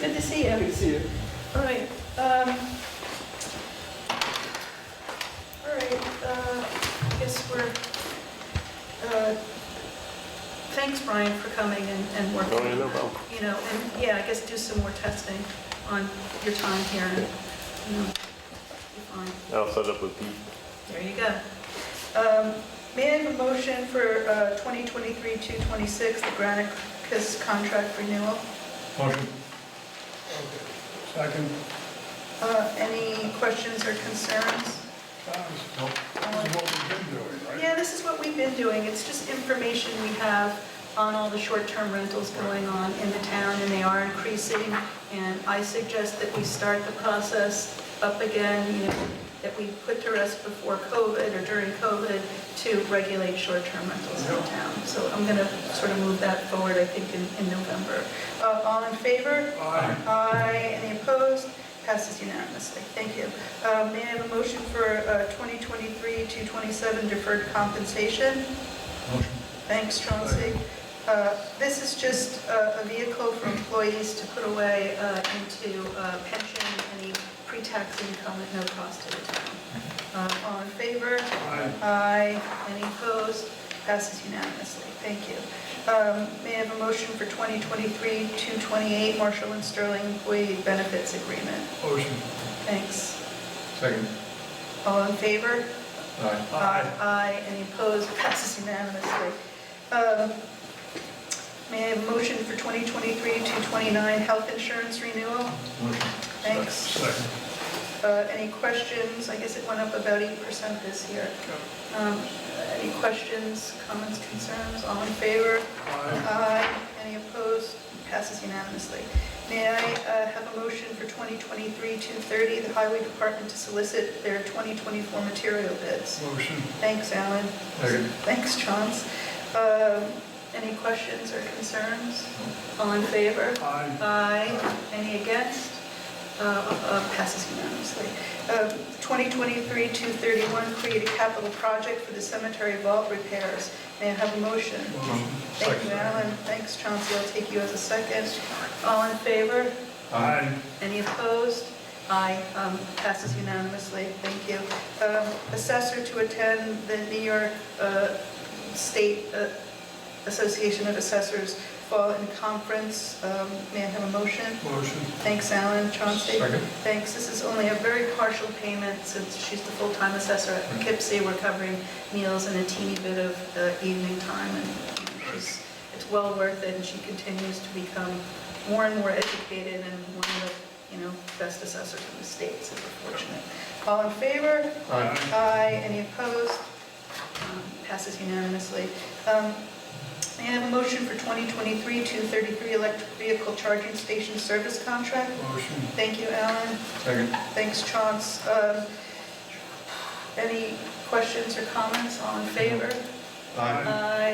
Good to see you. Good to see you. All right, um, all right, uh, I guess we're, uh, thanks, Brian, for coming and, and working. Oh, yeah, on no that. problem. You know, and, yeah, I guess do some more testing on your time here, and, you know, you're fine. I'll set up with Pete. There you go. Um, May I have a motion for uh, 2023-226, the Granicus contract renewal? Motion. Second. Uh, Any questions or concerns? Nope. This is what we've been doing, right? Yeah, this is what we've been doing. It's just information we have on all the short-term rentals going on in the town, and they are increasing. And I suggest that we start the process up again, you know, that we put to rest before COVID or during COVID to regulate short-term rentals in the town. So I'm going to sort of move that forward, I think, in, in November. Uh, All in favor? Aye. Aye. Any opposed? Passes unanimously. Thank you. Uh, May I have a motion for uh, 2023-227 deferred compensation? Motion. Thanks, Chauncey. Uh, This is just uh, a vehicle for employees to put away uh, into uh, pension, any pre-tax income at no cost to the town. Uh, All in favor? Aye. Aye. Any opposed? Passes unanimously. Thank you. Um, May I have a motion for 2023-228 Marshall and Sterling Employee Benefits Agreement? Motion. Thanks. Second. All in favor? Aye. Aye. Aye. Any opposed? Passes unanimously. Um, May I have a motion for 2023-229 Health Insurance Renewal? Motion. Thanks. Second. Uh, Any questions? I guess it went up about 8% this year. Um, Any questions, comments, concerns? All in favor? Aye. Aye. Any opposed? Passes unanimously. May I uh, have a motion for 2023-230, the Highway Department to solicit their 2024 material bids? Motion. Thanks, Alan. Second. Thanks, Chance. Um, Any questions or concerns? All in favor? Aye. Aye. Any against? Uh, uh, Passes unanimously. Uh, 2023-231, create a capital project for the cemetery vault repairs. May I have a motion? Motion. Thank you, Alan. Thanks, Chauncey. I'll take you as a second. All in favor? Aye. Any opposed? Aye, um, passes unanimously, thank you. Um, Assessor to attend the New York uh, State uh, Association of Assessors Fall in Conference. Um, May I have a motion? Motion. Thanks, Alan, Chauncey. Second. Thanks, this is only a very partial payment since she's the full-time assessor at Poughkeepsie. We're covering meals and a teeny bit of uh, evening time, and she's, it's well worth it, and she continues to become more and more educated and one of the, you know, best assessors in the state, so we're fortunate. All in favor? Aye. Aye. Any opposed? Um, Passes unanimously. Um, May I have a motion for 2023-233 electric vehicle charging station service contract? Motion. Thank you, Alan. Second. Thanks, Chance. Um, Any questions or comments? All in favor? Aye.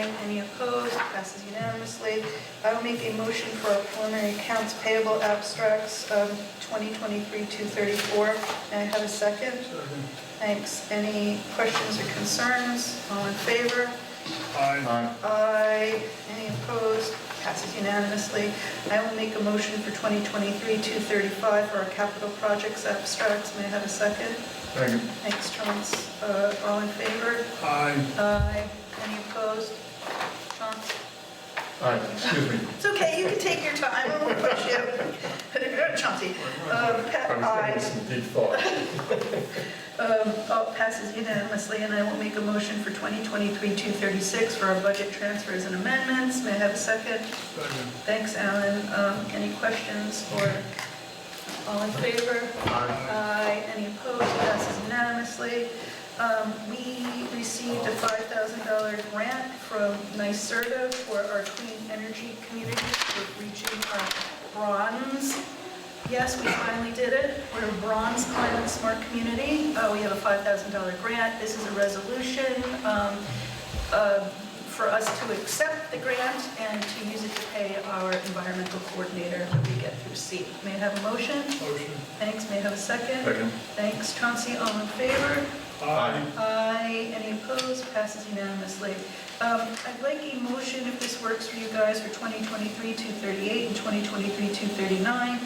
Aye. Any opposed? Passes unanimously. I will make a motion for our preliminary accounts payable abstracts, um, 2023-234. May I have a second? Second. Thanks. Any questions or concerns? All in favor? Aye. Aye. Any opposed? Passes unanimously. I will make a motion for 2023-235 for our capital projects abstracts. May I have a second? Second. Thanks, Chance. Uh, All in favor? Aye. Aye. Any opposed? Chance? Aye. Excuse me. It's okay, you can take your time, I won't push you. Chauncey. Um, I pa- was gonna Aye. get some deep thought. Um, oh, Passes unanimously, and I will make a motion for 2023-236 for our budget transfers and amendments. May I have a second? Second. Thanks, Alan. Um, Any questions or all in favor? Aye. Aye. Any opposed? Passes unanimously. Um, We received a $5,000 grant from NYSERDA for our clean energy communities for reaching our bronze. Yes, we finally did it. We're a bronze climate smart community. Uh, We have a $5,000 grant. This is a resolution um, uh, for us to accept the grant and to use it to pay our environmental coordinator that we get through C. May I have a motion? Motion. Thanks, may I have a second? Second. Thanks, Chauncey, all in favor? Aye. Aye, any opposed? Passes unanimously. Um, I'd like a motion, if this works for you guys, for 2023-238 and 2023-239,